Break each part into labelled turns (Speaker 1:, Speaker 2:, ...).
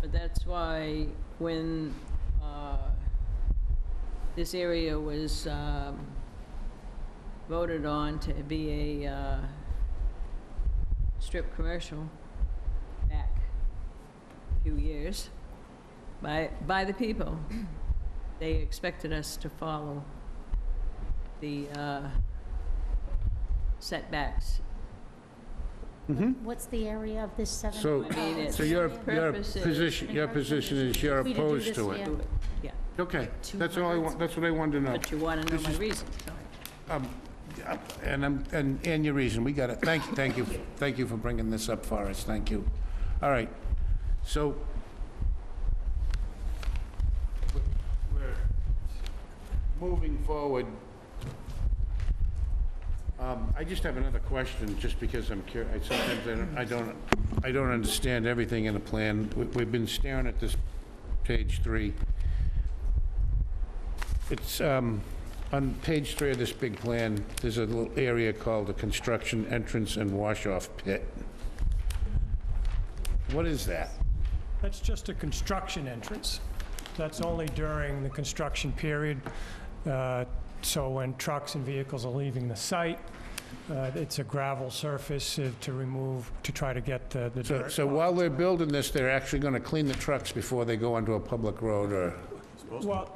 Speaker 1: But that's why when uh, this area was um, voted on to be a uh, strip commercial back a few years by, by the people, they expected us to follow the uh, setbacks.
Speaker 2: What's the area of this seven?
Speaker 3: So,
Speaker 1: I mean, it's
Speaker 3: so your, your
Speaker 1: purposes.
Speaker 3: position, your position is you're
Speaker 2: If we did do
Speaker 3: opposed
Speaker 2: this,
Speaker 3: to
Speaker 2: yeah.
Speaker 3: it?
Speaker 1: Do it, Yeah,
Speaker 3: Okay, that's all I want, that's what I wanted to know.
Speaker 1: but you want to know
Speaker 3: This
Speaker 1: my
Speaker 3: is-
Speaker 1: reason, so.
Speaker 3: Um, yeah, And I'm, and, and your reason, we got it. Thank, thank you, thank you for bringing this up for us, thank you. All right, so, we're moving forward. Um, I just have another question, just because I'm curious, sometimes I don't- I don't, I don't understand everything in the plan. We- We've been staring at this page three. It's, um, on page three of this big plan, there's a little area called the construction entrance and wash-off pit. What is that?
Speaker 4: That's just a construction entrance. That's only during the construction period. Uh, So when trucks and vehicles are leaving the site, uh, it's a gravel surface uh, to remove, to try to get the the
Speaker 3: So,
Speaker 4: dirt.
Speaker 3: so
Speaker 4: off.
Speaker 3: while they're building this, they're actually gonna clean the trucks before they go onto a public road or,
Speaker 4: Well,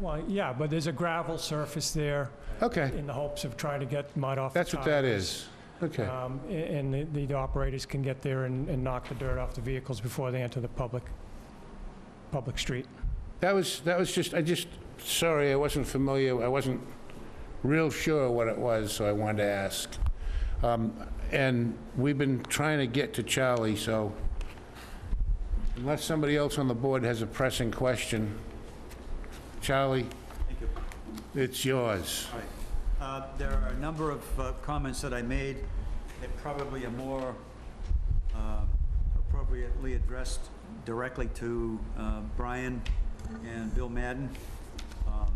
Speaker 4: well, yeah, but there's a gravel surface there
Speaker 3: okay,
Speaker 4: in the hopes of trying to get mud off. the
Speaker 3: that's what that
Speaker 4: tires.
Speaker 3: is. Okay,
Speaker 4: Um, a- And the- the operators can get there and and knock the dirt off the vehicles before they enter the public, public street.
Speaker 3: that was, that was just, I just, sorry, I wasn't familiar, I wasn't real sure what it was, so I wanted to ask. Um, And we've been trying to get to Charlie, so unless somebody else on the board has a pressing question, Charlie,
Speaker 5: Thank you.
Speaker 3: it's yours.
Speaker 5: All right. Uh, There are a number of uh, comments that I made that probably are more uh, appropriately addressed directly to uh, Brian and Bill Madden. Um,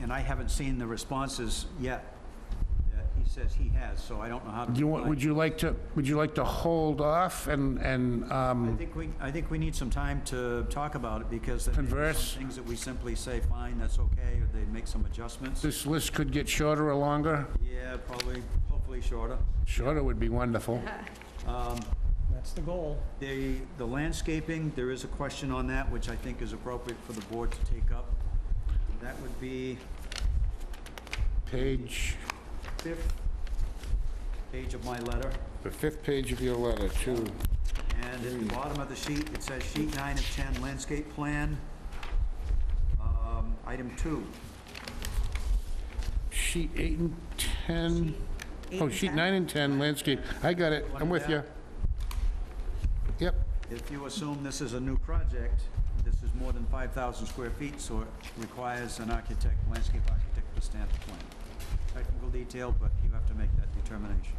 Speaker 5: And I haven't seen the responses yet that he says he has, so I don't know how to.
Speaker 3: Do you want,
Speaker 5: reply.
Speaker 3: would you like to, would you like to hold off and, and,
Speaker 5: I
Speaker 3: um,
Speaker 5: think we, I think we need some time to talk about it because there may be some
Speaker 3: Converse.
Speaker 5: things that we simply say, fine, that's okay, or they make some adjustments.
Speaker 3: this list could get shorter or longer?
Speaker 5: Yeah, probably, hopefully shorter.
Speaker 3: Shorter would be wonderful.
Speaker 4: That's the goal.
Speaker 5: The, the landscaping, there is a question on that, which I think is appropriate for the board to take up. That would be
Speaker 3: Page,
Speaker 5: fifth page of my letter.
Speaker 3: the fifth page of your letter, too.
Speaker 5: And at the bottom of the sheet, it says sheet nine of 10, landscape plan. Um, Item two,
Speaker 3: Sheet eight and 10. Oh, sheet nine and 10, landscape. I got it. I'm with you. Yep.
Speaker 5: if you assume this is a new project, this is more than 5,000 square feet, so it requires an architect, landscape architect to stamp the plan. Technical detail, but you have to make that determination.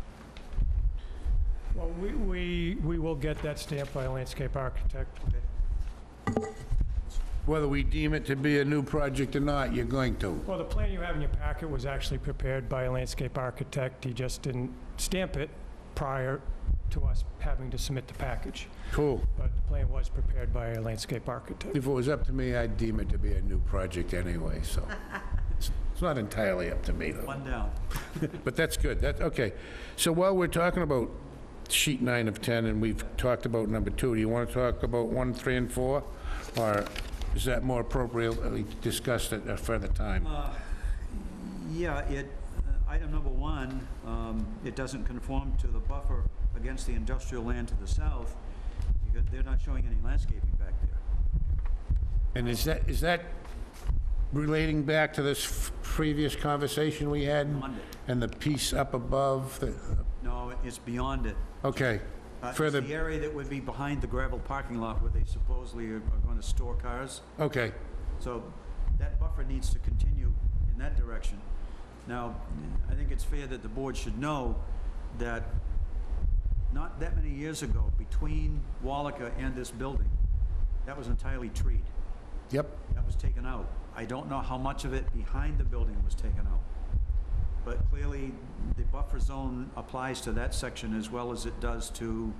Speaker 4: Well, we, we, we will get that stamped by a landscape architect.
Speaker 3: Whether we deem it to be a new project or not, you're going to.
Speaker 4: Well, the plan you have in your packet was actually prepared by a landscape architect. He just didn't stamp it prior to us having to submit the package.
Speaker 3: Cool.
Speaker 4: But the plan was prepared by a landscape architect.
Speaker 3: If it was up to me, I'd deem it to be a new project anyway, so. It's- It's not entirely up to me, though.
Speaker 5: One down.
Speaker 3: But that's good, that, okay. So while we're talking about sheet nine of 10, and we've talked about number two, do you want to talk about one, three, and four? Or is that more appropriately discussed at a further time?
Speaker 5: Yeah, it, uh, item number one, um, it doesn't conform to the buffer against the industrial land to the south, because they're not showing any landscaping back there.
Speaker 3: And is that, is that relating back to this f- previous conversation we had?
Speaker 5: Monday.
Speaker 3: And the piece up above, the-
Speaker 5: No, it's beyond it.
Speaker 3: okay.
Speaker 5: Uh, it's
Speaker 3: Further,
Speaker 5: The area that would be behind the gravel parking lot where they supposedly are going to store cars.
Speaker 3: okay,
Speaker 5: So that buffer needs to continue in that direction. Now, I think it's fair that the board should know that not that many years ago, between Wallaca and this building, that was entirely treed.
Speaker 3: yep.
Speaker 5: That was taken out. I don't know how much of it behind the building was taken out. But clearly, the buffer zone applies to that section as well as it does to